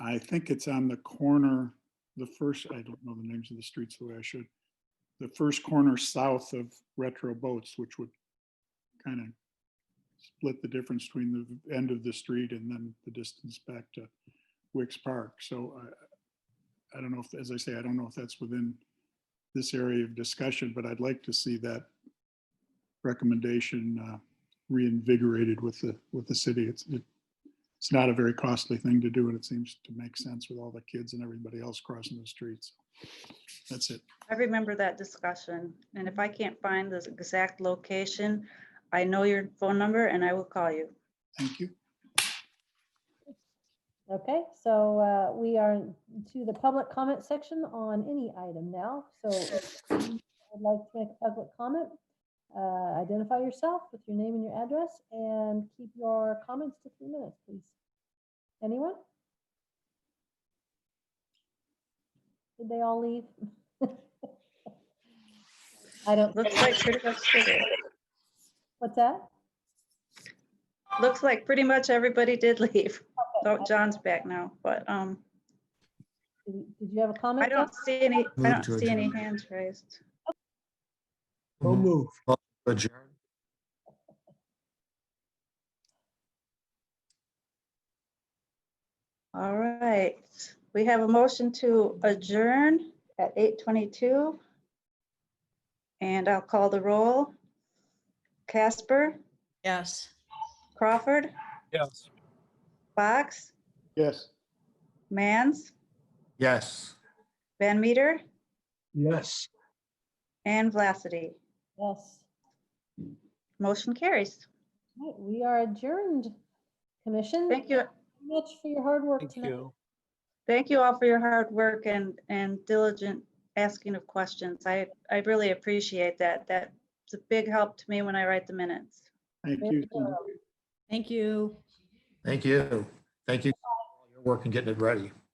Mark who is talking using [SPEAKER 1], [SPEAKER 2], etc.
[SPEAKER 1] I think it's on the corner, the first, I don't know the names of the streets the way I should. The first corner south of Retro Boats, which would kind of split the difference between the end of the street and then the distance back to Wicks Park. So I, I don't know if, as I say, I don't know if that's within this area of discussion, but I'd like to see that recommendation uh, reinvigorated with the, with the city. It's, it it's not a very costly thing to do, and it seems to make sense with all the kids and everybody else crossing the streets. That's it.
[SPEAKER 2] I remember that discussion, and if I can't find the exact location, I know your phone number and I will call you.
[SPEAKER 1] Thank you.
[SPEAKER 3] Okay, so uh, we are to the public comment section on any item now. So if you would like to make a public comment, uh, identify yourself with your name and your address and keep your comments to three minutes, please. Anyone? Did they all leave? I don't,
[SPEAKER 2] Looks like pretty much, did it.
[SPEAKER 3] what's that?
[SPEAKER 2] looks like pretty much everybody did leave.
[SPEAKER 3] Okay,
[SPEAKER 2] So John's back now, but um,
[SPEAKER 3] Did did you have a comment?
[SPEAKER 2] I don't see any, I
[SPEAKER 4] Move
[SPEAKER 2] don't
[SPEAKER 4] to
[SPEAKER 2] see any
[SPEAKER 4] adjourn.
[SPEAKER 2] hands raised.
[SPEAKER 4] So
[SPEAKER 5] move.
[SPEAKER 4] Adjourn.
[SPEAKER 2] All right, we have a motion to adjourn at eight twenty-two. And I'll call the roll. Casper,
[SPEAKER 6] Yes.
[SPEAKER 2] Crawford,
[SPEAKER 5] Yes.
[SPEAKER 2] Fox,
[SPEAKER 1] Yes.
[SPEAKER 2] Mans,
[SPEAKER 4] Yes.
[SPEAKER 2] Van Meter,
[SPEAKER 5] Yes.
[SPEAKER 2] and Vlacity.
[SPEAKER 3] Yes.
[SPEAKER 2] Motion carries.
[SPEAKER 3] Right, We are adjourned. Commission.
[SPEAKER 2] Thank you.
[SPEAKER 3] Much for your hard work
[SPEAKER 5] Thank
[SPEAKER 3] tonight.
[SPEAKER 5] you.
[SPEAKER 2] Thank you all for your hard work and, and diligent asking of questions. I, I really appreciate that. That's a big help to me when I write the minutes.
[SPEAKER 1] Thank
[SPEAKER 3] Very
[SPEAKER 1] you.
[SPEAKER 3] thorough.
[SPEAKER 6] Thank you.
[SPEAKER 4] Thank you. Thank you. for all Your work and getting it ready.